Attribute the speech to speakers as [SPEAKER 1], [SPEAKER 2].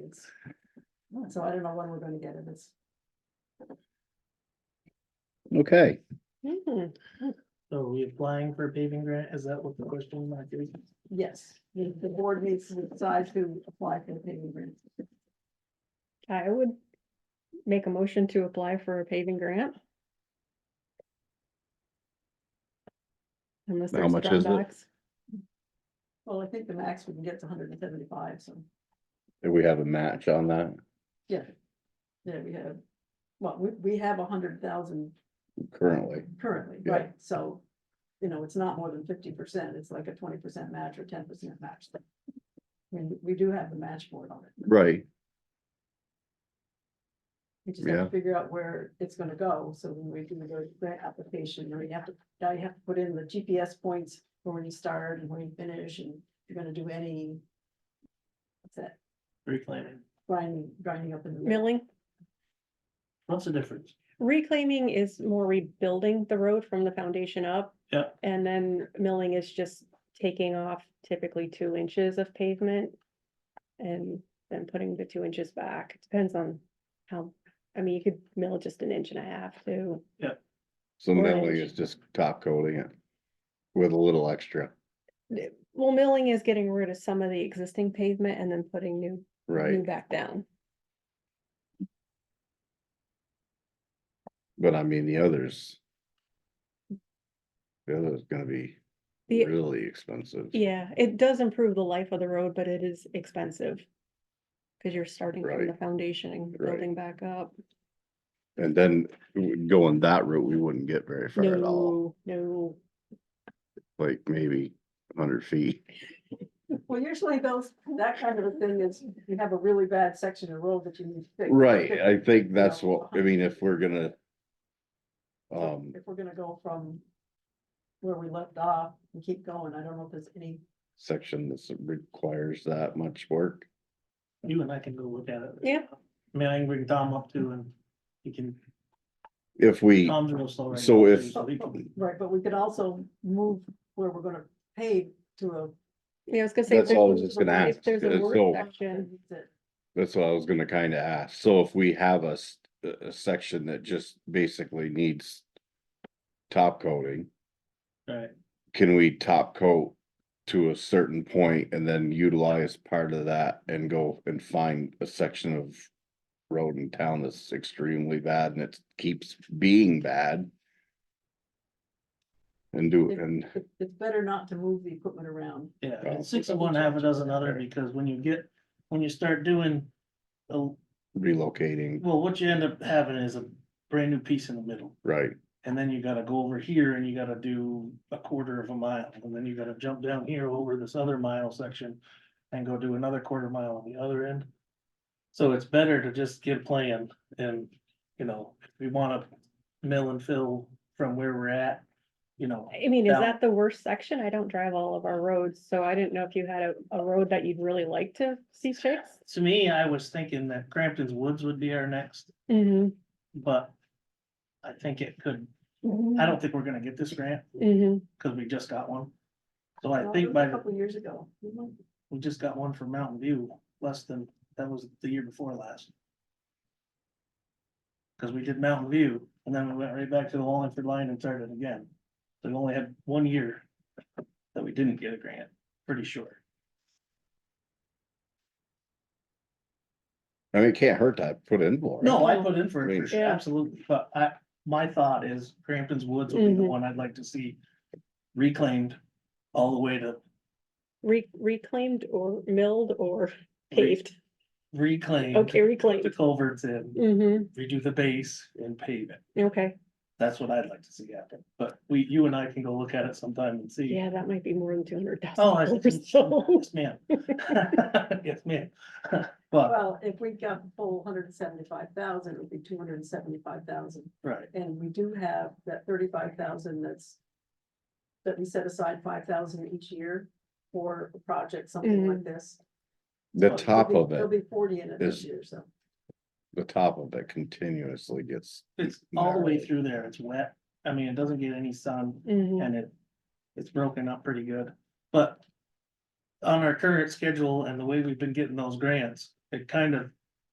[SPEAKER 1] bids. So I don't know when we're gonna get it, it's.
[SPEAKER 2] Okay,
[SPEAKER 3] So are we applying for a paving grant? Is that what the question might be?
[SPEAKER 1] Yes, the, the board needs to decide to apply for the paving grant.
[SPEAKER 4] I would make a motion to apply for a paving grant. Unless
[SPEAKER 2] How
[SPEAKER 4] there's
[SPEAKER 2] much is it?
[SPEAKER 4] drawbacks.
[SPEAKER 1] Well, I think the max we can get is hundred and seventy-five, so,
[SPEAKER 2] do we have a match on that?
[SPEAKER 1] yeah. Yeah, we have, well, we, we have a hundred thousand
[SPEAKER 2] Currently,
[SPEAKER 1] currently,
[SPEAKER 2] Yeah.
[SPEAKER 1] right, so. You know, it's not more than fifty percent, it's like a twenty percent match or ten percent match. I mean, we do have the match board on it,
[SPEAKER 2] right,
[SPEAKER 1] we just have
[SPEAKER 2] Yeah.
[SPEAKER 1] to figure out where it's gonna go, so when we do the grant application, or you have to, now you have to put in the GPS points. For when you start and when you finish, and if you're gonna do any. What's that,
[SPEAKER 3] Reclaiming.
[SPEAKER 1] grinding, grinding up in the mill,
[SPEAKER 4] Milling,
[SPEAKER 3] What's the difference?
[SPEAKER 4] reclaiming is more rebuilding the road from the foundation up.
[SPEAKER 3] Yeah.
[SPEAKER 4] And then milling is just taking off typically two inches of pavement. And then putting the two inches back. It Depends on how, I mean, you could mill just an inch and a half too.
[SPEAKER 2] so
[SPEAKER 4] Or
[SPEAKER 2] milling
[SPEAKER 4] inch.
[SPEAKER 2] is just top coating it with a little extra,
[SPEAKER 4] Well, milling is getting rid of some of the existing pavement and then putting new, new
[SPEAKER 2] right?
[SPEAKER 4] back down.
[SPEAKER 2] But I mean, the others. The other's gonna be
[SPEAKER 4] The-
[SPEAKER 2] really expensive.
[SPEAKER 4] Yeah, it does improve the life of the road, but it is expensive. Cause you're starting from
[SPEAKER 2] Right.
[SPEAKER 4] the foundation and
[SPEAKER 2] Right.
[SPEAKER 4] building back up.
[SPEAKER 2] And then w- going that route, we wouldn't get very far at all,
[SPEAKER 4] No, no,
[SPEAKER 2] like maybe hundred feet.
[SPEAKER 1] well, usually those, that kind of a thing is, you have a really bad section of road that you need to fix.
[SPEAKER 2] Right, I think that's
[SPEAKER 1] Yeah.
[SPEAKER 2] what, I mean, if we're gonna. Um,
[SPEAKER 1] If we're gonna go from. Where we left off and keep going, I don't know if there's any,
[SPEAKER 2] section that requires that much work,
[SPEAKER 3] You and I can go look at it.
[SPEAKER 4] Yeah.
[SPEAKER 3] I mean, I can bring Tom up too and he can,
[SPEAKER 2] if we.
[SPEAKER 3] Tom's real slow right now.
[SPEAKER 2] So if-
[SPEAKER 3] he can-
[SPEAKER 1] right, but we could also move where we're gonna pave to a.
[SPEAKER 4] yeah, I was gonna say. if
[SPEAKER 2] That's
[SPEAKER 4] there's-
[SPEAKER 2] all I was just gonna
[SPEAKER 4] if
[SPEAKER 2] ask,
[SPEAKER 4] There's a
[SPEAKER 2] is
[SPEAKER 4] work
[SPEAKER 2] so-
[SPEAKER 4] section,
[SPEAKER 2] That's what I was gonna kinda ask. So if we have a, s- a- a section that just basically needs. Top coating,
[SPEAKER 3] Right,
[SPEAKER 2] can we top coat to a certain point and then utilize part of that and go and find a section of. Road in town that's extremely bad and it keeps being bad. And do, and
[SPEAKER 1] It- It's better not to move the equipment around.
[SPEAKER 3] yeah,
[SPEAKER 2] Well,
[SPEAKER 3] it's six of one, half a dozen other, because when you get, when you start doing. a-
[SPEAKER 2] relocating,
[SPEAKER 3] Well, what you end up having is a brand new piece in the middle.
[SPEAKER 2] right,
[SPEAKER 3] And then you gotta go over here and you gotta do a quarter of a mile, and then you gotta jump down here over this other mile section. And go do another quarter mile on the other end. So it's better to just get a plan and, you know, if we wanna mill and fill from where we're at. You know,
[SPEAKER 4] I mean, is
[SPEAKER 3] Down.
[SPEAKER 4] that the worst section? I don't drive all of our roads, so I didn't know if you had a, a road that you'd really like to see fixed.
[SPEAKER 3] to me, I was thinking that Crampton's Woods would be our next,
[SPEAKER 4] Mm-hmm.
[SPEAKER 3] but. I think it could,
[SPEAKER 4] Mm-hmm.
[SPEAKER 3] I don't think we're gonna get this grant,
[SPEAKER 4] hmm
[SPEAKER 3] cause we just got one. So I
[SPEAKER 1] Well, it
[SPEAKER 3] think
[SPEAKER 1] was
[SPEAKER 3] by
[SPEAKER 1] A
[SPEAKER 3] the
[SPEAKER 1] couple years ago. We
[SPEAKER 2] Uh,
[SPEAKER 1] went-
[SPEAKER 3] We just got one from Mountain View, less than, that was the year before last. Cause we did Mountain View and then we went right back to the Wallingford line and started again. So we only had one year that we didn't get a grant, pretty sure.
[SPEAKER 2] I mean, it can't hurt to put in more.
[SPEAKER 3] No, I put in for it, for
[SPEAKER 2] Right.
[SPEAKER 3] sure,
[SPEAKER 4] Yeah.
[SPEAKER 3] absolutely, but I, my thought is Crampton's Woods would be the
[SPEAKER 4] Mhm.
[SPEAKER 3] one I'd like to see reclaimed all the way to
[SPEAKER 4] Re- reclaimed or milled or
[SPEAKER 3] Re-
[SPEAKER 4] paved.
[SPEAKER 3] reclaim.
[SPEAKER 4] Okay,
[SPEAKER 3] The
[SPEAKER 4] reclaimed.
[SPEAKER 3] culverts in,
[SPEAKER 4] Mm-hmm,
[SPEAKER 3] redo the base and pave it.
[SPEAKER 4] okay.
[SPEAKER 3] That's what I'd like to see happen, but we, you and I can go look at it sometime and see.
[SPEAKER 4] Yeah, that might be more than two hundred
[SPEAKER 3] Oh, I-
[SPEAKER 4] thousand. So,
[SPEAKER 3] yes, ma'am. Yes, ma'am. But,
[SPEAKER 1] Well, if we got the full hundred and seventy-five thousand, it would be two hundred and seventy-five thousand.
[SPEAKER 3] right,
[SPEAKER 1] And we do have that thirty-five thousand that's. That we set aside five thousand each year for a project, something like this.
[SPEAKER 2] The
[SPEAKER 3] Well, it'll
[SPEAKER 2] top
[SPEAKER 1] There'll
[SPEAKER 2] of
[SPEAKER 1] be- There'll
[SPEAKER 2] it,
[SPEAKER 1] be forty in it this
[SPEAKER 2] is-
[SPEAKER 1] year, so.
[SPEAKER 2] the top of it continuously gets.
[SPEAKER 3] it's all the way
[SPEAKER 2] narrowed.
[SPEAKER 3] through there, it's wet, I mean, it doesn't get any sun,
[SPEAKER 4] mhm.
[SPEAKER 3] and it, it's broken up pretty good, but. On our current schedule and the way we've been getting those grants, it kind of